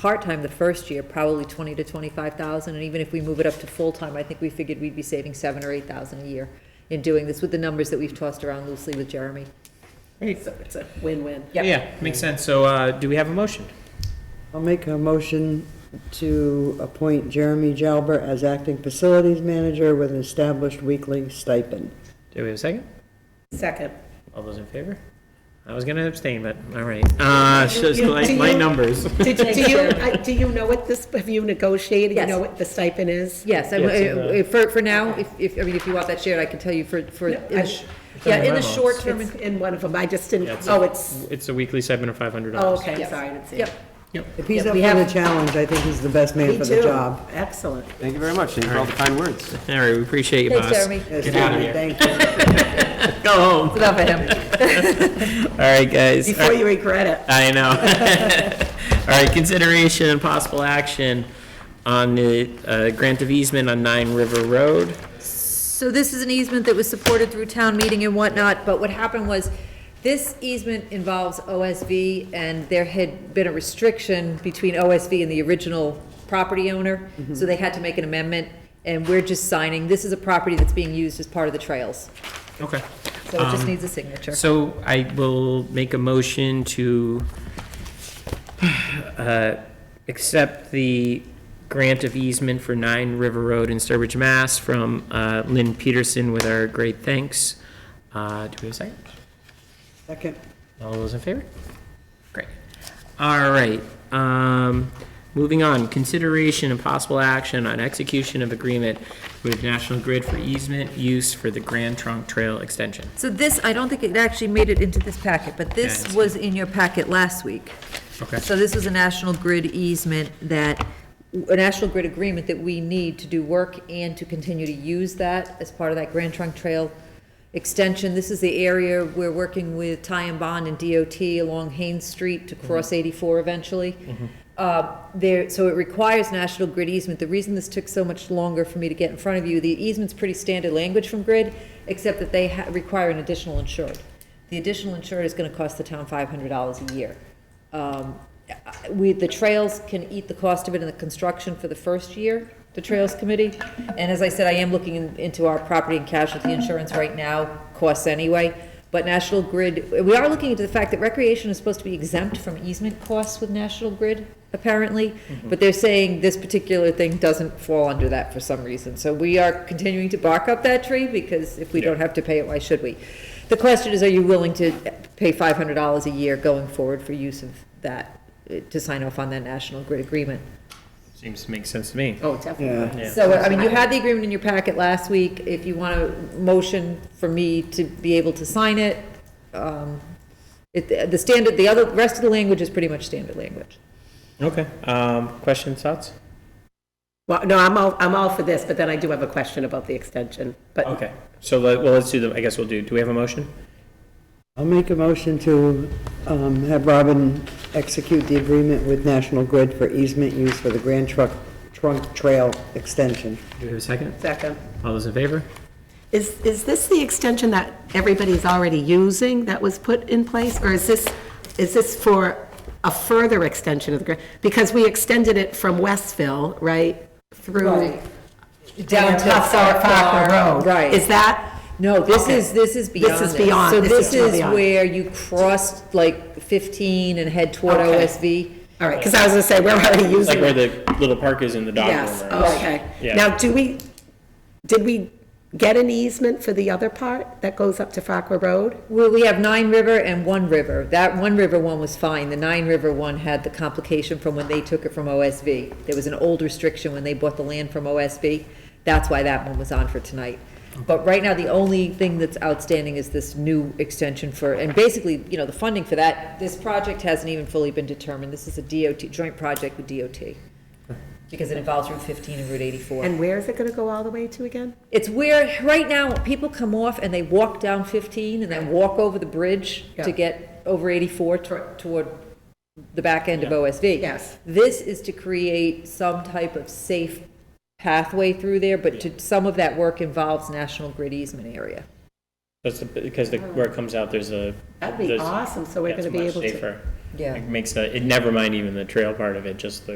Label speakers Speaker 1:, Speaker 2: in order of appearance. Speaker 1: part-time the first year, probably twenty to twenty-five thousand, and even if we move it up to full-time, I think we figured we'd be saving seven or eight thousand a year in doing this with the numbers that we've tossed around loosely with Jeremy.
Speaker 2: So it's a win-win.
Speaker 1: Yep.
Speaker 3: Yeah, makes sense. So, uh, do we have a motion?
Speaker 4: I'll make a motion to appoint Jeremy Jalbert as acting facilities manager with an established weekly stipend.
Speaker 3: Do we have a second?
Speaker 2: Second.
Speaker 3: All those in favor? I was gonna abstain, but, all right. Uh,
Speaker 2: You-
Speaker 3: just
Speaker 2: you-
Speaker 3: like
Speaker 2: do
Speaker 3: my
Speaker 2: you-
Speaker 3: numbers.
Speaker 2: Do do you, I- do you know what this, have you negotiated? You
Speaker 1: Yes.
Speaker 2: know what the stipend is?
Speaker 1: Yes, uh, I-
Speaker 3: Yes,
Speaker 1: I- I- for, for now, if, if, I mean, if you want that shared, I can tell you for, for,
Speaker 2: No,
Speaker 1: in the
Speaker 2: I-
Speaker 1: sh-
Speaker 3: It's
Speaker 1: yeah,
Speaker 3: on
Speaker 1: in
Speaker 3: my
Speaker 1: the short
Speaker 3: notes.
Speaker 1: term.
Speaker 2: It's
Speaker 1: and-
Speaker 2: in one of them. I just didn't,
Speaker 3: Yeah, it's a-
Speaker 2: oh, it's,
Speaker 3: It's a weekly stipend of five hundred
Speaker 2: oh,
Speaker 3: dollars.
Speaker 2: okay, I'm
Speaker 1: Yep.
Speaker 2: sorry, I didn't see it.
Speaker 1: Yep,
Speaker 4: If he's
Speaker 1: Yeah,
Speaker 4: up
Speaker 1: we
Speaker 4: for the
Speaker 1: have-
Speaker 4: challenge, I think he's the best man
Speaker 2: Me
Speaker 4: for the
Speaker 2: too.
Speaker 4: job.
Speaker 2: Excellent.
Speaker 5: Thank you very much. Thank you for all the kind words.
Speaker 3: All right, we appreciate you,
Speaker 1: thanks,
Speaker 3: boss.
Speaker 1: Jeremy.
Speaker 4: Yes,
Speaker 3: Get out of
Speaker 4: Jeremy,
Speaker 3: here.
Speaker 4: thank you.
Speaker 3: Go home.
Speaker 1: It's Enough of him.
Speaker 3: All right, guys.
Speaker 2: Before you regret it.
Speaker 3: I know. All right, consideration and possible action on the uh, grant of easement on Nine River Road.
Speaker 1: So this is an easement that was supported through town meeting and whatnot, but what happened was, this easement involves OSV, and there had been a restriction between OSV and the original property owner, so they had to make an amendment, and we're just signing, this is a property that's being used as part of the trails,
Speaker 3: Okay.
Speaker 1: so it just
Speaker 3: Um,
Speaker 1: needs a signature.
Speaker 3: So I will make a motion to uh, accept the grant of easement for Nine River Road in Sturbridge, Mass. from uh, Lynn Peterson with our great thanks. Uh, Do we have a second?
Speaker 4: Second.
Speaker 3: All those in favor? Great. All right, um, moving on, consideration and possible action on execution of agreement with National Grid for easement use for the Grand Trunk Trail extension.
Speaker 1: So this, I don't think it actually made it into this packet, but
Speaker 3: Yeah,
Speaker 1: this
Speaker 3: it's-
Speaker 1: was in your packet last week.
Speaker 3: Okay.
Speaker 1: So this was a National Grid easement that, a National Grid agreement that we need to do work and to continue to use that as part of that Grand Trunk Trail extension. This is the area we're working with Ty and Bond and DOT along Haynes Street to cross 84 eventually. Uh, There, so it requires National Grid easement. The reason this took so much longer for me to get in front of you, the easement's pretty standard language from Grid, except that they ha- require an additional insured. The additional insured is going to cost the town $500 a year. Um, I- We, the trails can eat the cost of it in the construction for the first year, the Trails Committee. And as I said, I am looking in- into our property and casualty insurance right now, costs anyway. But National Grid, we are looking into the fact that recreation is supposed to be exempt from easement costs with National Grid, apparently. But they're saying this particular thing doesn't fall under that for some reason. So we are continuing to bark up that tree because if we don't have to pay it, why should we? The question is, are you willing to pay five hundred dollars a year going forward for use of that, eh, to sign off on that national grid agreement?
Speaker 3: Seems to make sense to me.
Speaker 2: Oh, definitely.
Speaker 4: Yeah.
Speaker 3: Yeah.
Speaker 1: So, I mean, you had the agreement in your packet last week, if you want a motion for me to be able to sign it, um, it, the standard, the other, rest of the language is pretty much standard language.
Speaker 3: Okay, um, questions, thoughts?
Speaker 2: Well, no, I'm all, I'm all for this, but then I do have a question about the extension. But
Speaker 3: Okay, so let, well, let's do them, I guess we'll do, do we have a motion?
Speaker 4: I'll make a motion to um, have Robin execute the agreement with National Grid for easement use for the Grand Truck, Trunk Trail extension.
Speaker 3: Do we have a second?
Speaker 2: second.
Speaker 3: All those in favor?
Speaker 2: Is, is this the extension that everybody's already using that was put in place? Or is this, is this for a further extension of the, grant? because we extended it from Westville, right, through down to Huffar Parker Road?
Speaker 1: Right.
Speaker 2: Is that,
Speaker 1: No, this
Speaker 2: Okay.
Speaker 1: is, this is
Speaker 2: This
Speaker 1: beyond
Speaker 2: is beyond-
Speaker 1: So
Speaker 2: this
Speaker 1: this
Speaker 2: is well
Speaker 1: is
Speaker 2: beyond.
Speaker 1: where you crossed like fifteen and head toward
Speaker 2: Okay.
Speaker 1: OSV.
Speaker 2: all right, because I was going to say, we're already
Speaker 3: It's like
Speaker 2: using
Speaker 3: where
Speaker 2: it.
Speaker 3: the little park is in the dock.
Speaker 2: Yes,
Speaker 3: over.
Speaker 2: okay.
Speaker 3: Yeah.
Speaker 2: Now, do we, did we get an easement for the other part that goes up to Farquhar Road?
Speaker 1: Well, we have Nine River and One River. That One River one was fine. The Nine River one had the complication from when they took it from OSV. There was an old restriction when they bought the land from OSV. That's why that one was on for tonight. But right now, the only thing that's outstanding is this new extension for, and basically, you know, the funding for that, this project hasn't even fully been determined. This is a DOT, joint project with DOT. Because it involves Route 15 and Route 84.
Speaker 2: And where is it going to go all the way to again?
Speaker 1: It's where, right now, people come off and they walk down 15 and then walk over the bridge to
Speaker 2: Yeah.
Speaker 1: get over 84 to- toward the back end of OSV.
Speaker 2: Yes.
Speaker 1: This is to create some type of safe pathway through there, but to, some of that work involves National Grid easement area.
Speaker 3: That's the- because the, where it comes out, there's a.
Speaker 2: That'd be
Speaker 3: there's-
Speaker 2: awesome, so we're
Speaker 3: yeah, it's
Speaker 2: gonna be
Speaker 3: much
Speaker 2: able to-
Speaker 3: safer.
Speaker 6: Yeah.
Speaker 3: It makes that, it, never mind even the trail part of it, just the